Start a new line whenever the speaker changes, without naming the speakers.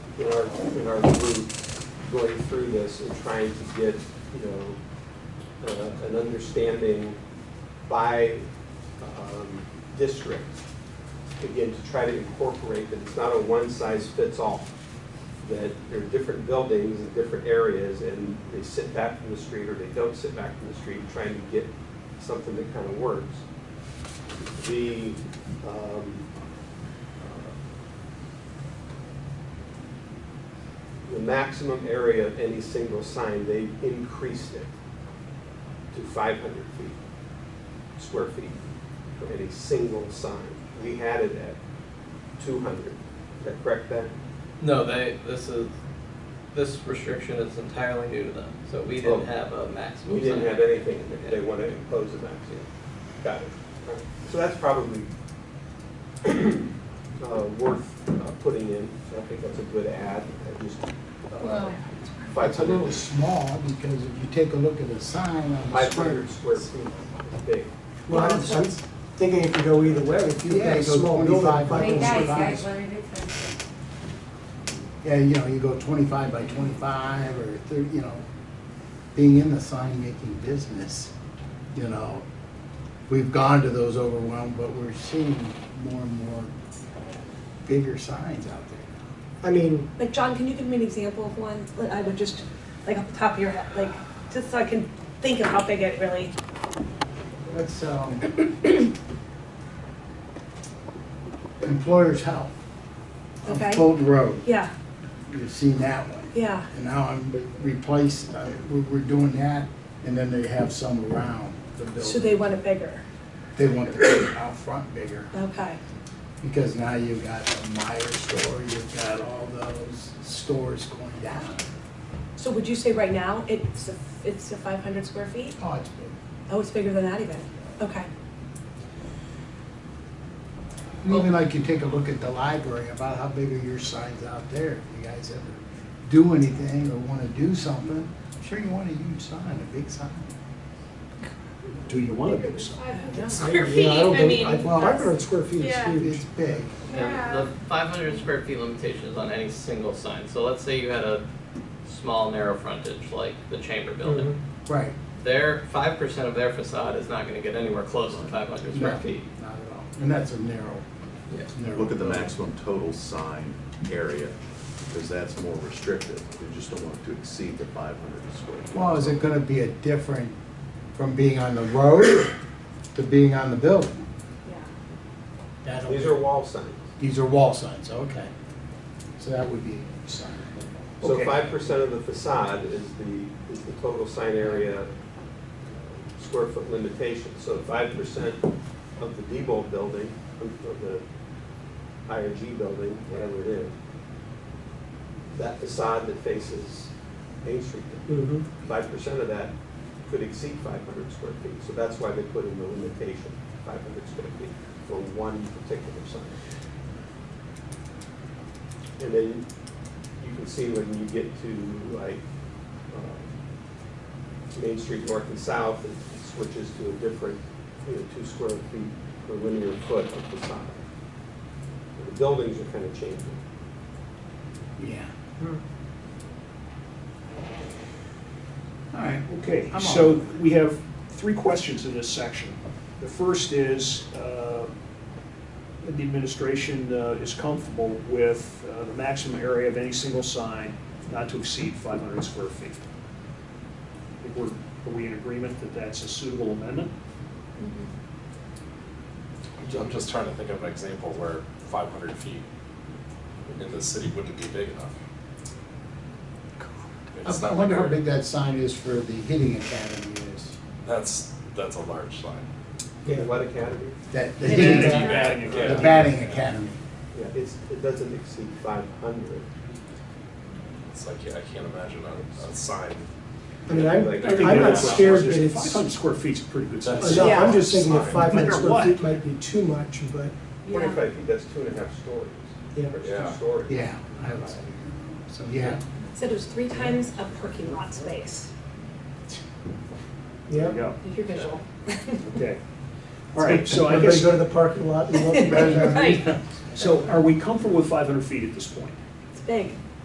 in our, in our group going through this and trying to get, you know, uh, an understanding by um, district, again, to try to incorporate that it's not a one-size-fits-all, that there are different buildings in different areas, and they sit back from the street or they don't sit back from the street, trying to get something that kind of works. The, um, the maximum area of any single sign, they increased it to five hundred feet, square feet, for any single sign. We had it at two hundred, is that correct, Ben?
No, they, this is, this restriction is entirely new to them, so we didn't
Oh.
have a maximum.
We didn't
sign.
have anything in there, they wanna impose a maximum. Got it. All right. So that's probably uh, worth uh, putting in, so I think that's a good add, I just, uh,
Well,
five
It's a little
hundred,
small because if you take a look at the sign on the
five
square.
hundred square feet, is big.
Well, I'm I'm thinking it could go either way, if you put
Yeah,
a
it goes
small building,
25
five
Hey guys,
hundred square
guys,
feet.
what did it say?
Yeah, you know, you go twenty-five by twenty-five or thirty, you know, being in the sign making business, you know. We've gone to those overwhelmed, but we're seeing more and more bigger signs out there.
I mean,
Like, John, can you give me an example of one that I would just, like, off the top of your head, like, just so I can think of how big it really,
That's, um, employer's health. on
Okay.
Fulton Road,
yeah,
you've seen that one.
yeah.
And now I'm replaced, uh, we're, we're doing that, and then they have some around the building.
So they want it bigger,
They want to put it out front bigger,
okay.
because now you've got the Meyer store, you've got all those stores going down.
So would you say right now, it's, a- it's a five hundred square feet?
Oh, it's big.
Oh, it's bigger than that even, okay.
And Even like you take a look at the library, about how big are your signs out there? If you guys ever do anything or want to do something, sure you want a huge sign, a big sign.
Do you want a big sign?
you
Square feet,
know, I don't
I
think, I,
mean,
five hundred square feet is
Yeah.
huge.
It's big.
And
yeah,
the five hundred square feet limitation is on any single sign, so let's say you had a small narrow frontage, like the chamber building.
Mm-hmm.
Right,
Their, five percent of their facade is not gonna get anywhere close to five hundred square
No.
feet.
not at all. And that's a narrow,
Yeah.
narrow.
Look at the
building.
maximum total sign area, because that's more restrictive. We just don't want it to exceed the five hundred square. feet.
Well, is it gonna be a different from being on the road to being on the building? That'll-
These are wall signs.
These are wall signs, okay. So that would be a sign.
So
Okay.
five percent of the facade is the, is the total sign area uh, square foot limitation. So five percent of the Diebold building, of of the IRG building, whatever it is, that facade that faces Main Street,
Mhm.
five percent of that could exceed five hundred square feet. So that's why they put in the limitation, five hundred square feet for one particular sign. And then you can see when you get to like um, Main Street North and South, it switches to a different, you know, two square feet per linear foot of facade. The buildings are kind of changing.
Yeah.
Hmm.
All right.
Okay,
I'm
so
all-
we have three questions in this section. The first is, uh, that the administration uh, is comfortable with uh, the maximum area of any single sign not to exceed 500 square feet. I think we're- Are we in agreement that that's a suitable amendment?
I'm ju- I'm just trying to think of an example where five hundred feet in the city wouldn't be big enough. It's
I
not
wonder how
like
big that sign is for the hitting academy is.
That's, that's a large sign.
The What academy?
That, the
Yeah.
hitting,
Yeah.
the
Batting academy.
batting academy.
Yeah, it's, it doesn't exceed five hundred.
It's like, yeah, I can't imagine a, a sign.
I mean, I'm,
Like,
I'm not scared that it's,
500 square feet's a pretty good
That's-
size.
no, I'm
Yeah.
just thinking that
Sign.
five hundred
Bigger
square
what?
feet might be too much, but,
Yeah.
Twenty-five feet, that's two and a half stories.
Yeah.
Or it's
Yeah.
two stories.
Yeah. I was- So, yeah.
Said it was three times a parking lot space.
yeah.
Yeah,
Your visual.
okay. All right, so I
Everybody
guess,
go to the parking lot and look.
Right,
so are we comfortable with 500 feet at this point?
it's big.